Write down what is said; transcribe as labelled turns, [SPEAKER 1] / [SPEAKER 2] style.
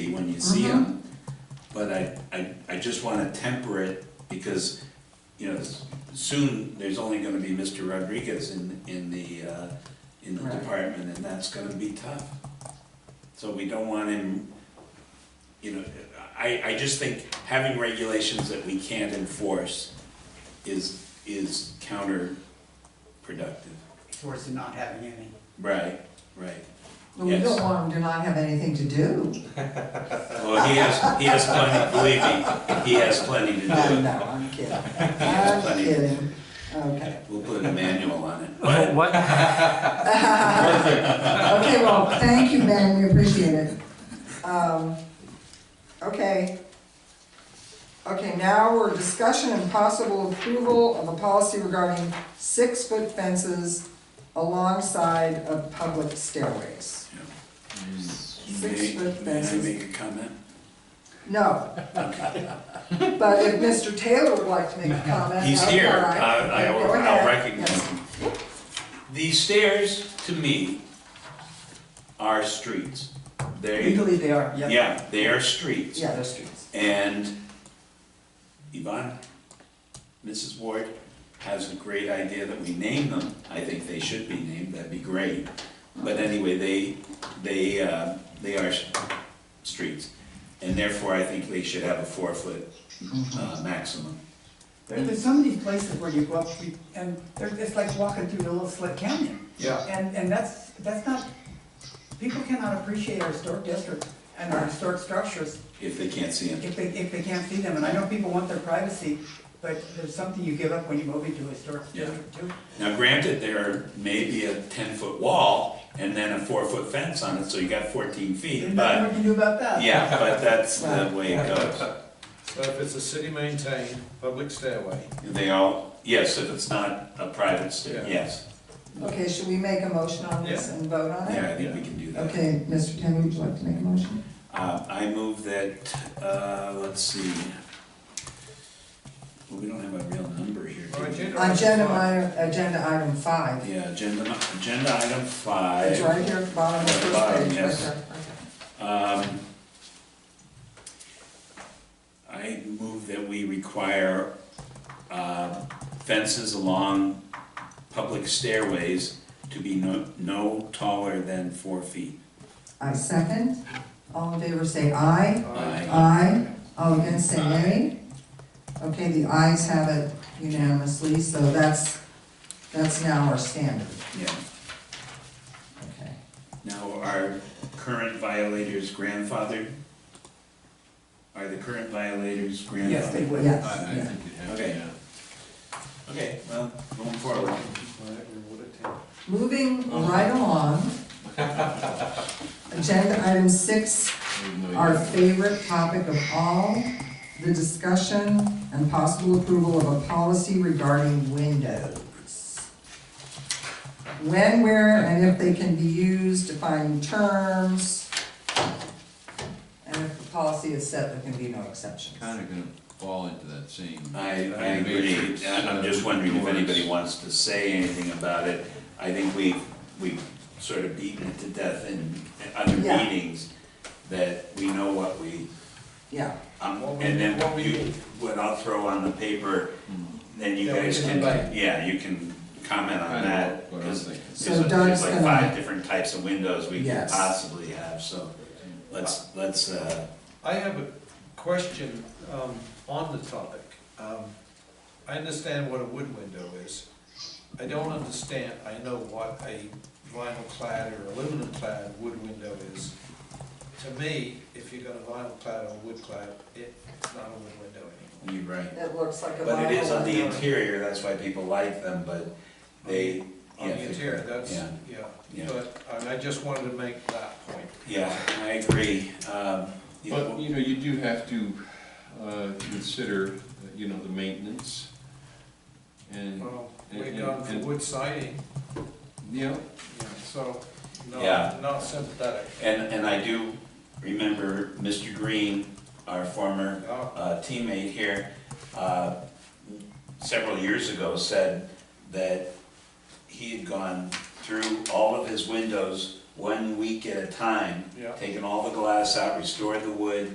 [SPEAKER 1] and see them. But I, I, I just wanna temper it, because, you know, s- soon, there's only gonna be Mr. Rodriguez in, in the, uh, in the
[SPEAKER 2] Right.
[SPEAKER 1] department, and that's gonna be tough. So we don't want him, you know, I, I just think having regulations that we can't enforce is, is counterproductive.
[SPEAKER 3] towards the not having any.
[SPEAKER 1] Right, right.
[SPEAKER 2] But we
[SPEAKER 1] Yes.
[SPEAKER 2] don't want them to not have anything to do.
[SPEAKER 1] Well, he has, he has plenty, believe me, he has plenty to
[SPEAKER 2] No,
[SPEAKER 1] do.
[SPEAKER 2] no, I'm kidding. I'm
[SPEAKER 1] Plenty.
[SPEAKER 2] kidding. Okay.
[SPEAKER 1] We'll put a manual on it.
[SPEAKER 4] But
[SPEAKER 1] But
[SPEAKER 4] what,
[SPEAKER 2] Okay, well, thank you, Ben, we appreciate it. Um, Okay. Okay, now we're discussion and possible approval of a policy regarding six-foot fences alongside of public stairways.
[SPEAKER 1] may,
[SPEAKER 2] Six-foot
[SPEAKER 1] may I
[SPEAKER 2] fences,
[SPEAKER 1] make a comment?
[SPEAKER 2] no. But if Mr. Taylor would like to make a comment.
[SPEAKER 1] He's here,
[SPEAKER 2] Uh, all right.
[SPEAKER 1] I, I-
[SPEAKER 2] Go ahead.
[SPEAKER 1] I'll recognize
[SPEAKER 2] Yes.
[SPEAKER 1] him. These stairs, to me, are streets. They,
[SPEAKER 3] Legally, they are, yeah.
[SPEAKER 1] yeah, they are streets.
[SPEAKER 2] Yeah.
[SPEAKER 3] Those streets.
[SPEAKER 1] And Yvonne, Mrs. Ward, has a great idea that we name them. I think they should be named, that'd be great. But anyway, they, they, uh, they are s- streets. And therefore, I think they should have a four-foot uh, maximum.
[SPEAKER 3] But there's so many places where you go up, street and they're, it's like walking through a little slit canyon.
[SPEAKER 1] Yeah.
[SPEAKER 3] And, and that's, that's not, people cannot appreciate our historic district and our historic structures
[SPEAKER 1] If they can't see them.
[SPEAKER 3] if they, if they can't see them. And I know people want their privacy, but there's something you give up when you move into a historic
[SPEAKER 1] Yeah.
[SPEAKER 3] district too.
[SPEAKER 1] Now granted, there may be a ten-foot wall and then a four-foot fence on it, so you got fourteen feet,
[SPEAKER 3] There's nothing
[SPEAKER 1] but,
[SPEAKER 3] we can do about that.
[SPEAKER 1] yeah, but that's the way it goes.
[SPEAKER 5] But if it's a city-maintained public stairway,
[SPEAKER 1] They all, yes, if it's not a private stair,
[SPEAKER 5] Yeah.
[SPEAKER 1] yes.
[SPEAKER 2] Okay, should we make a motion on this
[SPEAKER 5] Yeah.
[SPEAKER 2] and vote on it?
[SPEAKER 1] Yeah, I think we can do that.
[SPEAKER 2] Okay, Mr. Taylor, would you like to make a motion?
[SPEAKER 1] Uh, I move that, uh, let's see. Well, we don't have a real number here. do we?
[SPEAKER 5] Well, agenda-
[SPEAKER 2] Agenda item, agenda item five,
[SPEAKER 1] Yeah, agenda, nu- agenda item
[SPEAKER 2] it's
[SPEAKER 1] five.
[SPEAKER 2] right here at the bottom of the
[SPEAKER 1] At the
[SPEAKER 2] first
[SPEAKER 1] bottom,
[SPEAKER 2] page, right
[SPEAKER 1] yes.
[SPEAKER 2] there.
[SPEAKER 1] Um, I move that we require uh, fences along public stairways to be no, no taller than four feet.
[SPEAKER 2] I second, all in favor say aye,
[SPEAKER 1] Aye.
[SPEAKER 2] aye, all against say nay. Okay, the ayes have it unanimously, so that's, that's now our standard,
[SPEAKER 1] Yeah.
[SPEAKER 2] okay.
[SPEAKER 1] Now, are current violators grandfathered? Are the current violators grandfathered?
[SPEAKER 3] Yes, they would.
[SPEAKER 2] Yes.
[SPEAKER 5] I I think you'd have to,
[SPEAKER 1] Okay.
[SPEAKER 5] yeah.
[SPEAKER 1] Okay, well, going forward.
[SPEAKER 5] Whatever would it take?
[SPEAKER 2] Moving right along. Agenda item six, our favorite topic of all, the discussion and possible approval of a policy regarding windows. When, where, and if they can be used, defining terms. And if the policy is set, there can be no exceptions.
[SPEAKER 6] kind of gonna fall into that same.
[SPEAKER 1] I, I
[SPEAKER 6] Maybe
[SPEAKER 1] agree,
[SPEAKER 6] it's,
[SPEAKER 1] I- I'm
[SPEAKER 6] uh,
[SPEAKER 1] just wondering if
[SPEAKER 6] doors.
[SPEAKER 1] anybody wants to say anything about it. I think we, we've sort of beaten it to death in other
[SPEAKER 2] Yeah.
[SPEAKER 1] meetings, that we know what we,
[SPEAKER 2] Yeah,
[SPEAKER 1] um,
[SPEAKER 5] What we-
[SPEAKER 1] and then
[SPEAKER 5] what we
[SPEAKER 1] you,
[SPEAKER 5] need.
[SPEAKER 1] what I'll throw on the paper, then you
[SPEAKER 5] That we
[SPEAKER 1] guys
[SPEAKER 5] can
[SPEAKER 1] can,
[SPEAKER 5] invite.
[SPEAKER 1] yeah, you can comment on
[SPEAKER 6] Kind of
[SPEAKER 1] that.
[SPEAKER 6] what Hmm. I was
[SPEAKER 1] 'cause
[SPEAKER 6] thinking.
[SPEAKER 1] there's
[SPEAKER 2] So
[SPEAKER 1] a-
[SPEAKER 2] Doug's
[SPEAKER 1] There's like
[SPEAKER 2] gonna-
[SPEAKER 1] five different types of windows we could
[SPEAKER 2] Yes.
[SPEAKER 1] possibly have, so let's, let's, uh,
[SPEAKER 5] I have a question um, on the topic. Um, I understand what a wood window is. I don't understand, I know what a vinyl clad or aluminum clad wood window is. To me, if you got a vinyl clad or wood clad, it's not a wood window anymore.
[SPEAKER 1] you're right.
[SPEAKER 2] it looks like a.
[SPEAKER 1] But it is on the
[SPEAKER 2] vinyl window.
[SPEAKER 1] interior, that's why people like them, but they.
[SPEAKER 5] On
[SPEAKER 1] yeah,
[SPEAKER 5] the
[SPEAKER 1] they-
[SPEAKER 5] interior, that's,
[SPEAKER 1] Yeah,
[SPEAKER 5] yeah,
[SPEAKER 1] Yeah.
[SPEAKER 5] but I mean, I just wanted to make that point.
[SPEAKER 1] yeah, I agree. Um, you
[SPEAKER 6] But,
[SPEAKER 1] know,
[SPEAKER 6] you know, you do have to uh, consider, uh, you know, the maintenance and,
[SPEAKER 5] Well,
[SPEAKER 6] And-
[SPEAKER 5] we've gone for
[SPEAKER 6] and-
[SPEAKER 5] wood siding,
[SPEAKER 6] you know,
[SPEAKER 5] yeah, so,
[SPEAKER 1] Yeah.
[SPEAKER 5] no, not sympathetic.
[SPEAKER 1] And, and I do remember Mr. Green, our former
[SPEAKER 5] Oh,
[SPEAKER 1] uh, teammate here, uh, several years ago said that he had gone through all of his windows one week at a time,
[SPEAKER 5] Yeah.
[SPEAKER 1] taken all the glass out, restored the wood,